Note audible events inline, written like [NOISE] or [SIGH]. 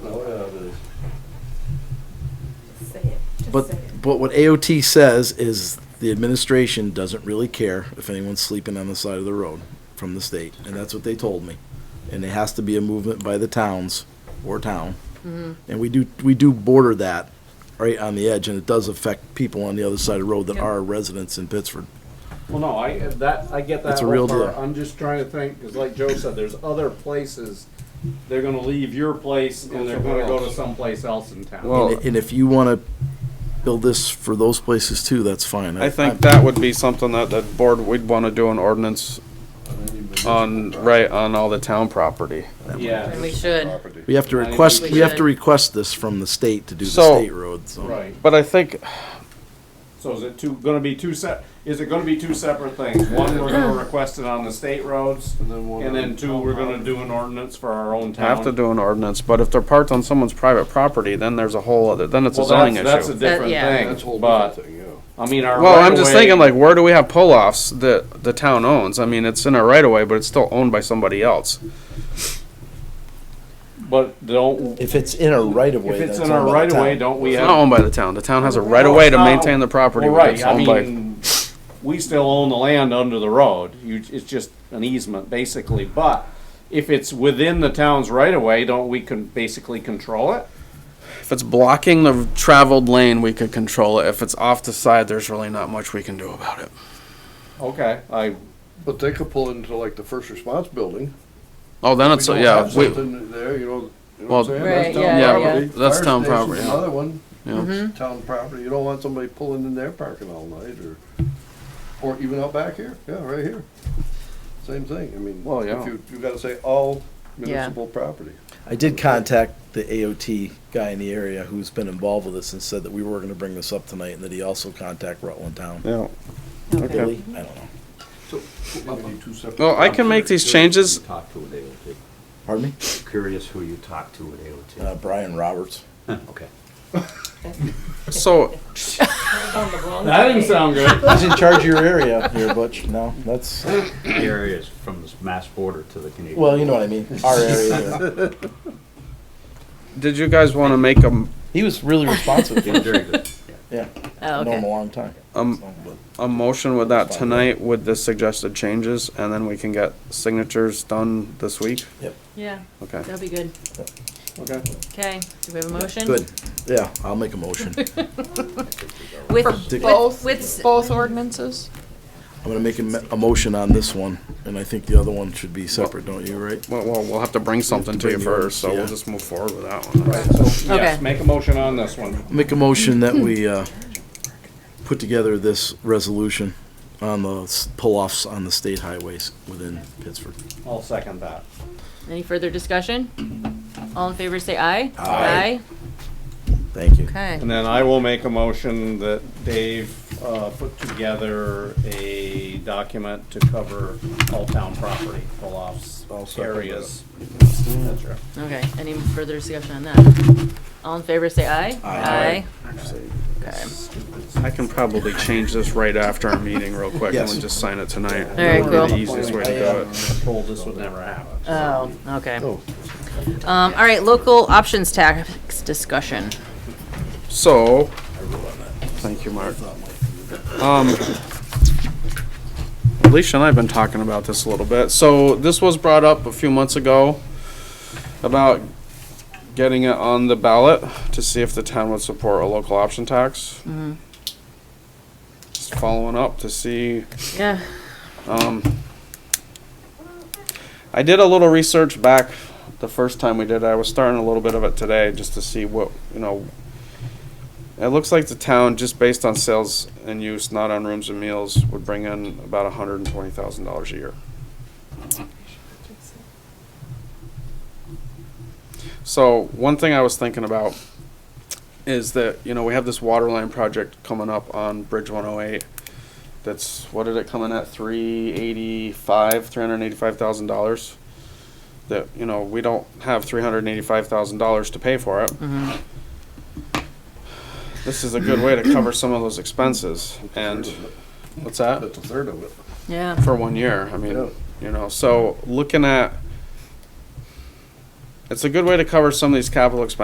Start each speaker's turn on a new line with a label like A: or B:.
A: But, but what AOT says is the administration doesn't really care if anyone's sleeping on the side of the road from the state, and that's what they told me. And it has to be a movement by the towns or town. And we do, we do border that right on the edge, and it does affect people on the other side of the road that
B: Yep.
A: are residents in Pittsford.
C: Well, no, I, that, I get that.
A: It's a real
C: whole part.
A: deal.
C: I'm just trying to think, because like Joe said, there's other places, they're gonna leave your place and they're gonna go to someplace else in town.
A: And
D: Well-
A: i- and if you wanna build this for those places too, that's fine.
D: I think that would be something that the board, we'd want to do an ordinance on, right, on all the town property.
C: Yeah,
B: And we should.
A: We have to
C: I think
A: request,
B: we
A: we have to
B: should.
A: request this from the state to do the
D: So-
A: state road, so.
C: right.
D: But I think,
C: So is it two, gonna be two sep, is it gonna be two separate things? One, we're gonna request it on the state roads, and then two, we're gonna do an ordinance for our own town.
D: have to do an ordinance, but if they're parked on someone's private property, then there's a whole other, then it's a
C: Well,
D: zoning
C: that's, that's a
D: issue.
C: different
B: yeah.
C: thing, but, I mean, our.
D: Well, I'm just
C: right-of-way-
D: thinking like, where do we have pull-offs that the town owns? I mean, it's in a right of way, but it's still owned by somebody else.
C: But don't,
A: If it's in a right of way,
C: if it's
A: that's
C: in our
A: owned by
C: right
A: the
C: of way,
A: town.
C: don't we
D: It's
C: have?
D: not owned by the town. The town has a right of way to
C: No, it's not.
D: maintain the property.
C: Well,
D: but
C: right,
D: it's
C: I
D: owned by-
C: mean, we still own the land under the road, you, it's just an easement, basically, but if it's within the town's right of way, don't we can basically control it?
D: If it's blocking the traveled lane, we could control it. If it's off the side, there's really not much we can do about it.
C: Okay, I,
E: But they could pull into like the first response building.
D: Oh, then it's,
E: We don't
D: yeah,
E: have
D: we,
E: something There, you know, you know
D: Well,
E: what I'm saying? That's town
B: Right, yeah, Mm-hmm. yeah.
E: property.
D: That's
E: Fire
D: town
E: station's
D: property.
E: Another one,
D: you know,
E: town property. You don't want somebody pulling in their parking all night or, or even out back here. Yeah, right here. Same thing. I mean,
D: Well, yeah.
E: if you, you gotta say all municipal property.
A: I did contact the AOT guy in the area who's been involved with this and said that we were gonna bring this up tonight and that he also contact Rutland Town.
D: yeah.
A: Billy? I don't know.
D: Well, I can make these changes.
F: Talk to at AOT.
A: Pardon me?
F: Curious who you talk to at AOT.
A: Uh, Brian Roberts.
F: Okay.
D: So,
C: that didn't sound good.
A: [LAUGHS] He's in charge of your area here, Butch. No, that's,
F: The area is from the Mass border to the Canadian.
A: well, you know what I mean, our area there.
D: did you guys want to make a,
A: He was really responsive,
F: Yeah, Very good.
A: yeah.
B: Oh,
A: Known him a
B: okay.
A: long time.
D: um,
A: So, but-
D: a motion with that tonight with the suggested changes, and then we can get signatures done this week?
B: Yeah,
D: Okay.
B: that'll be good.
C: Okay.
B: Okay, do we have a motion?
A: Good, yeah, I'll make a motion.
B: With,
A: Dick-
B: with, with,
G: Both ordinances?
A: I'm gonna make a, me- a motion on this one, and I think the other one should be separate, don't you, right?
D: Well, well, we'll have to bring something to you
A: bring the orders,
D: first, so
A: yeah.
D: we'll just move forward with that one.
B: Okay.
C: Yes, make a motion on this one.
A: Make a motion that we, uh, put together this resolution on the s- pull-offs on the state highways within Pittsburgh.
C: I'll second that.
B: any further discussion? All in favor, say aye. Aye.
A: Thank you.
B: Okay.
C: And then I will make a motion that Dave, uh, put together a document to cover all town property, pull-offs,
E: I'll second that.
C: areas. That's
B: Okay, any further discussion on that? All in favor, say aye. Aye. Okay,
D: I can probably change this right after our meeting real quick and
A: Yes.
D: then just sign it tonight.
B: all right,
D: That'd be
B: cool.
D: The easiest way to do it.
C: right. Told this would never happen.
B: Oh, okay. Um, all right, local options tax discussion.
D: So, thank you, Mark. Um, Alicia and I have been talking about this a little bit. So this was brought up a few months ago about getting it on the ballot to see if the town would support a local option tax. Just following up to see
B: Yeah,
D: um, I did a little research back the first time we did. it. I was starting a little bit of it today just to see what you know. It looks like the town, just based on sales and use, not on rooms and meals, would bring in about one hundred and twenty thousand dollars a year. So one thing I was thinking about is that you know we have this water line project coming up on Bridge One Hundred Eight. That's what did it come in at? Three eighty-five, three hundred eighty-five thousand dollars. That you know we don't have three hundred eighty-five thousand dollars to pay for it.
B: Mm-hmm.
D: This is a good way to cover some of those expenses. And what's that?
E: That's a third of it.
B: yeah,
D: for one year. I mean,
E: Yeah.
D: you know, so looking at, it's a good way to cover some of these capital expenses.